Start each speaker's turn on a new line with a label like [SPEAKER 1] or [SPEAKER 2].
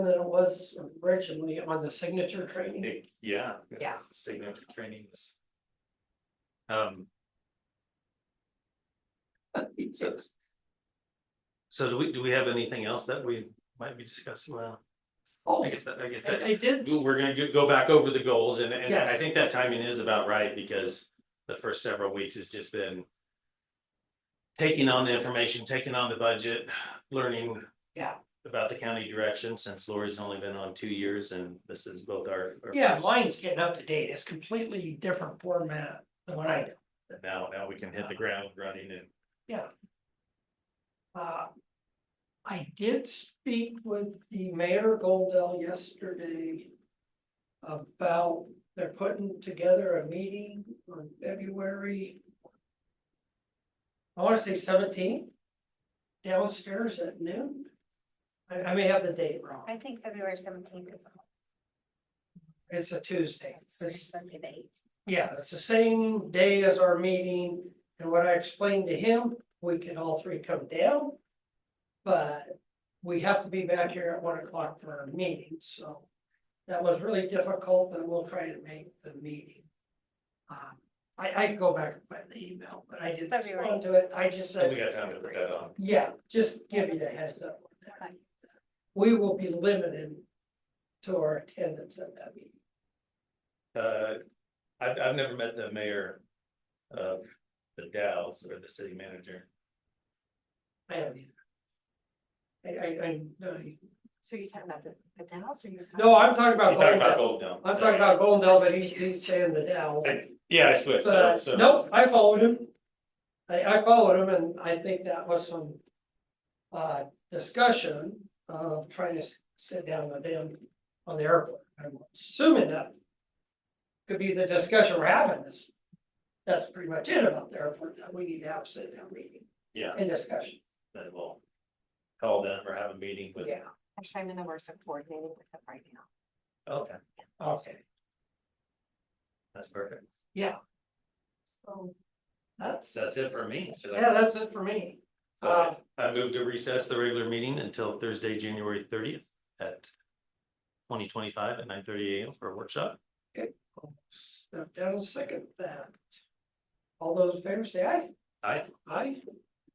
[SPEAKER 1] than it was originally on the signature training.
[SPEAKER 2] It- Yeah.
[SPEAKER 1] Yeah.
[SPEAKER 2] Signature training was. Um, so. So do we, do we have anything else that we might be discussing? Well,
[SPEAKER 1] Oh,
[SPEAKER 2] I
[SPEAKER 1] I,
[SPEAKER 2] guess that, I guess that,
[SPEAKER 1] I did,
[SPEAKER 2] we're gonna go- go back over the goals and, and
[SPEAKER 1] Yes.
[SPEAKER 2] I think that timing is about right because the first several weeks has just been. Taking on the information, taking on the budget, learning.
[SPEAKER 1] Yeah.
[SPEAKER 2] About the county direction since Lori's only been on two years and this is both our. our
[SPEAKER 1] yeah,
[SPEAKER 2] first-
[SPEAKER 1] mine's getting up to date. It's completely different format than what I do.
[SPEAKER 2] Now, now we can hit the ground running and.
[SPEAKER 1] Uh, I did speak with the mayor Goldell yesterday. About, they're putting together a meeting on February. I wanna say seventeen. Downstairs at noon. I, I may have the date wrong.
[SPEAKER 3] I think February seventeenth is.
[SPEAKER 1] It's a Tuesday. It's-
[SPEAKER 3] Sunday the eighth.
[SPEAKER 1] Yeah, it's the same day as our meeting, and what I explained to him, we can all three come down. But we have to be back here at one o'clock for our meeting, so that was really difficult, but we'll try to make the meeting. Um, I, I can go back and find the email, but I
[SPEAKER 3] It's
[SPEAKER 1] didn't
[SPEAKER 3] February.
[SPEAKER 1] respond to it, I just
[SPEAKER 2] So
[SPEAKER 1] said.
[SPEAKER 2] we got time to put that on.
[SPEAKER 1] Yeah, just give you the heads up. on that. We will be limited to our attendance at that meeting.
[SPEAKER 2] Uh, I've, I've never met the mayor of the Dalles or the city manager.
[SPEAKER 1] I haven't either. I, I, I, no, you-
[SPEAKER 3] So you're talking about the, the Dallas or you're?
[SPEAKER 1] no, I'm talking about
[SPEAKER 2] He's talking about
[SPEAKER 1] Goldell.
[SPEAKER 2] Gold Dome.
[SPEAKER 1] I'm talking about Goldell, but he's, he's saying the Dalles.
[SPEAKER 2] Yeah, I switched. so-
[SPEAKER 1] But,
[SPEAKER 2] so-
[SPEAKER 1] Uh, nope, I followed him. I, I followed him and I think that was some, uh, discussion of trying to s- sit down with them on the airport. I'm assuming that could be the discussion we're having is, that's pretty much it about the airport, that we need to have a sit down meeting
[SPEAKER 2] Yeah,
[SPEAKER 1] and discussion,
[SPEAKER 2] then we'll call them or have a meeting with.
[SPEAKER 1] yeah.
[SPEAKER 3] Actually, I'm in the works of coordinating with them right now.
[SPEAKER 2] Okay,
[SPEAKER 1] Okay,
[SPEAKER 2] that's perfect.
[SPEAKER 1] yeah, Oh.
[SPEAKER 3] So
[SPEAKER 1] that's,
[SPEAKER 2] That's it for me. Should I-
[SPEAKER 1] yeah, that's it for me. Uh,
[SPEAKER 2] I move to recess the regular meeting until Thursday, January thirtieth at twenty twenty-five at nine thirty AM for a workshop.
[SPEAKER 1] step down and second that. All those in favor say aye.
[SPEAKER 2] Aye.
[SPEAKER 1] Aye,